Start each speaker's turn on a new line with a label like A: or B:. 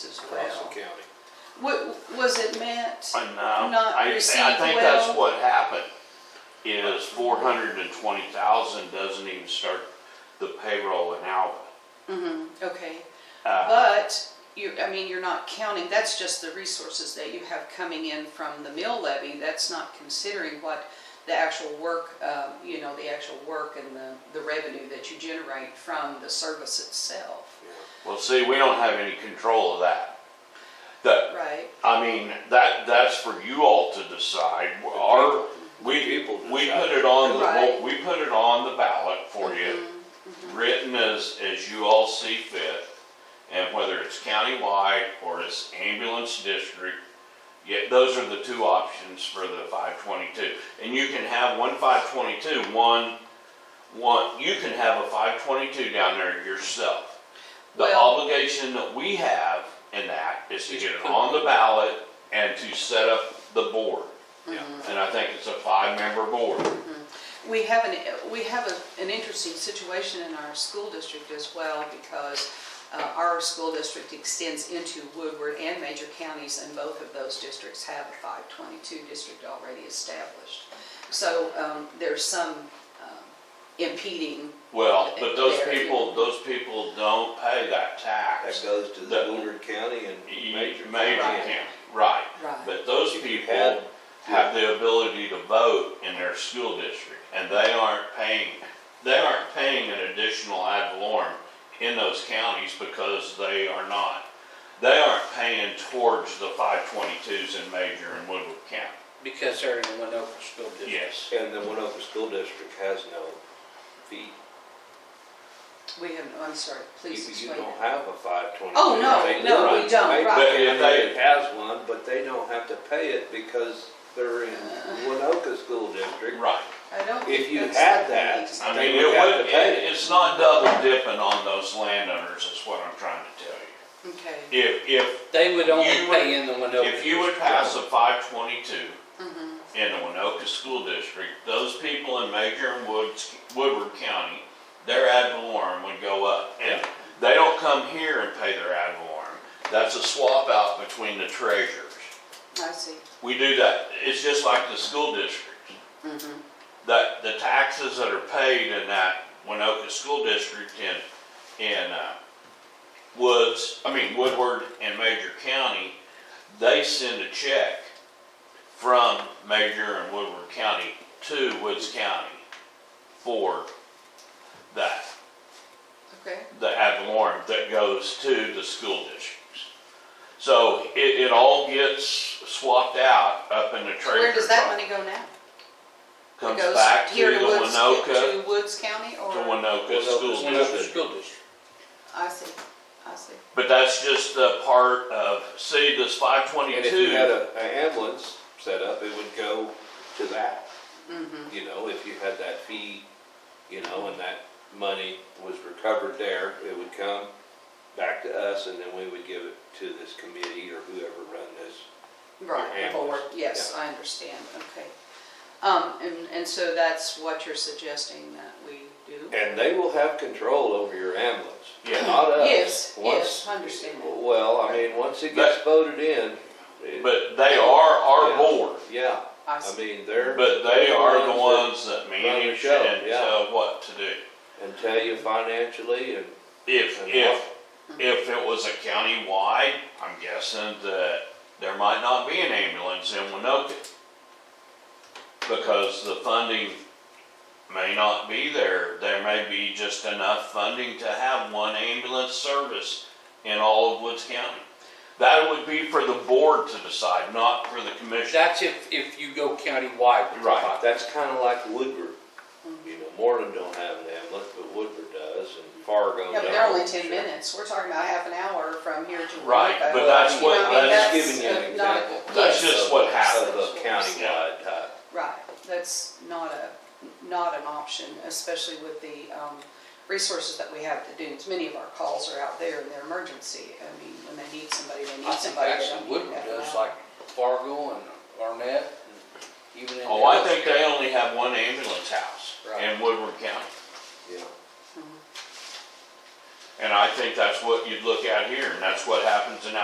A: as
B: Johnson
A: well.
B: County.
A: Wa- was it meant?
C: I know.
A: Not
C: Uh, I, I
A: received well.
C: think that's what happened, is four hundred and twenty thousand doesn't even start the payroll in Alvin.
A: Okay,
C: Uh,
A: but you, I mean, you're not counting, that's just the resources that you have coming in from the mill levy. That's not considering what the actual work, uh, you know, the actual work and the, the revenue that you generate from the service itself,
C: Well, see, we don't have any control of that. The,
A: right?
C: I mean, that, that's for you all to decide. Our, we,
B: people
C: we
B: decide.
C: put it on
A: Right. Mm-hmm.
C: the, we put it on the ballot for you, written as, as you all see fit. And whether it's countywide or it's ambulance district, yeah, those are the two options for the five twenty-two. And you can have one five twenty-two, one, one, you can have a five twenty-two down there yourself. The
A: Well-
C: obligation that we have in that is to get it on the ballot and to set up the board.
A: mm-hmm.
B: Yeah.
C: And I think it's a five-member board.
A: We have an, we have a- an interesting situation in our school district as well because uh, our school district extends into Woodward and major counties and both of those districts have a 522 district already established. So um, there's some um, impeding,
C: Well, but those
A: There.
C: people, those people don't pay that
B: That
C: tax.
B: goes to the
C: The-
B: Woodward County and major.
C: Major
A: Right.
C: county, right.
A: Right.
C: But those
B: If you
C: people
B: had-
C: have the ability to vote in their school district and they aren't paying, they aren't paying an additional ad valorem in those counties because they are not, they aren't paying towards the five twenty-twos in Major and Woodward County.
D: Because they're in the Winoka School District.
C: Yes.
B: And the Winoka School District has no fee.
A: we have, I'm sorry,
B: You
A: please
B: you
A: explain.
B: don't have a five twenty-two.
A: Oh, no, no, we don't, right.
C: But if they-
B: It has one, but they don't have to pay it because they're in
A: Uh.
B: Winoka School District.
C: Right.
A: I don't
B: If
A: think
B: you
A: that's
B: had
A: the
B: that,
A: case.
C: I
B: They
C: mean,
B: would
C: it
B: have
C: would,
B: to pay
C: it-
B: it.
C: it's not double dipping on those landowners, is what I'm trying to tell you.
A: Okay,
C: If, if,
D: They would only
C: You would-
D: pay in the Winoka.
C: if you would pass a five twenty-two in the Winoka School District, those people in Major and Woods, Woodward County, their ad valorem would go up. And they don't come here and pay their ad valorem. That's a swap out between the treasurers.
A: I see.
C: We do that. It's just like the school district. That the taxes that are paid in that Winoka School District in, in, uh, Woods, I mean Woodward and Major County, they send a check from Major and Woodward County to Woods County for that,
A: Okay,
C: the ad valorem that goes to the school districts. So it, it all gets swapped out up in the treasurer's
A: where does that
C: office
A: money go now? It
C: comes
A: goes
C: back to
A: here
C: the
A: Woods- To
C: Winoka,
A: Woods County or?
C: to Winoka
B: Winoka
C: School
B: School.
C: District.
D: Winoka School District.
A: I see, I see.
C: But that's just a part of, see, this five
B: And if you had
C: twenty-two,
B: a, a ambulance set up, it would go to that.
A: Mm-hmm.
B: You know, if you had that fee, you know, and that money was recovered there, it would come back to us and then we would give it to this committee or whoever run this.
A: Right,
B: Yeah.
A: or, yes, I understand, okay. Um, and, and so that's what you're suggesting that we do?
B: And they will have control over your ambulance,
C: Yeah.
B: not us.
A: Yes,
B: Once-
A: yes, I understand.
B: Well, I mean, once it gets voted in. it-
C: but they are our board,
B: Yeah,
A: I
B: I
A: see,
B: mean, they're.
C: but they are the
B: that-
C: ones that
B: the
C: manage
B: show,
C: and
B: yeah.
C: tell what to do.
B: And tell you financially and
C: If,
B: And
C: if, if it was a county-wide, I'm guessing that there might not be an ambulance in Winoka. Because the funding may not be there, there may be just enough funding to have one ambulance service in all of Woods County. That would be for the board to decide, not for the commission.
D: That's if, if you go countywide. with the
C: Right.
D: five.
B: That's kind of like Woodward.
A: Mm-hmm.
B: You know, Moreland don't have an ambulance, but Woodward does, and Fargo
A: Yeah,
B: does.
A: but they're only ten minutes, we're talking about half an hour from here to.
C: Right,
A: Winoka.
C: but that's
A: You know,
C: what-
A: I mean,
C: that's
B: giving you an
A: uh, not a-
B: example.
C: That's
A: yes,
C: just what
B: Of
C: happens.
B: a countywide type.
A: Right, that's not a, not an option, especially with the, um, resources that we have to do. Many of our calls are out there in their emergency, I mean, when they need somebody, they
D: I
A: need
D: think
A: somebody. They
D: actually
A: don't
D: Woodward
A: need
D: does
A: that.
D: like Fargo and Arnett and even in.
C: Oh, I think they only have one ambulance house in
D: Right.
C: Woodward County.
B: Yeah.
C: And I think that's what you'd look at here, and that's what happens in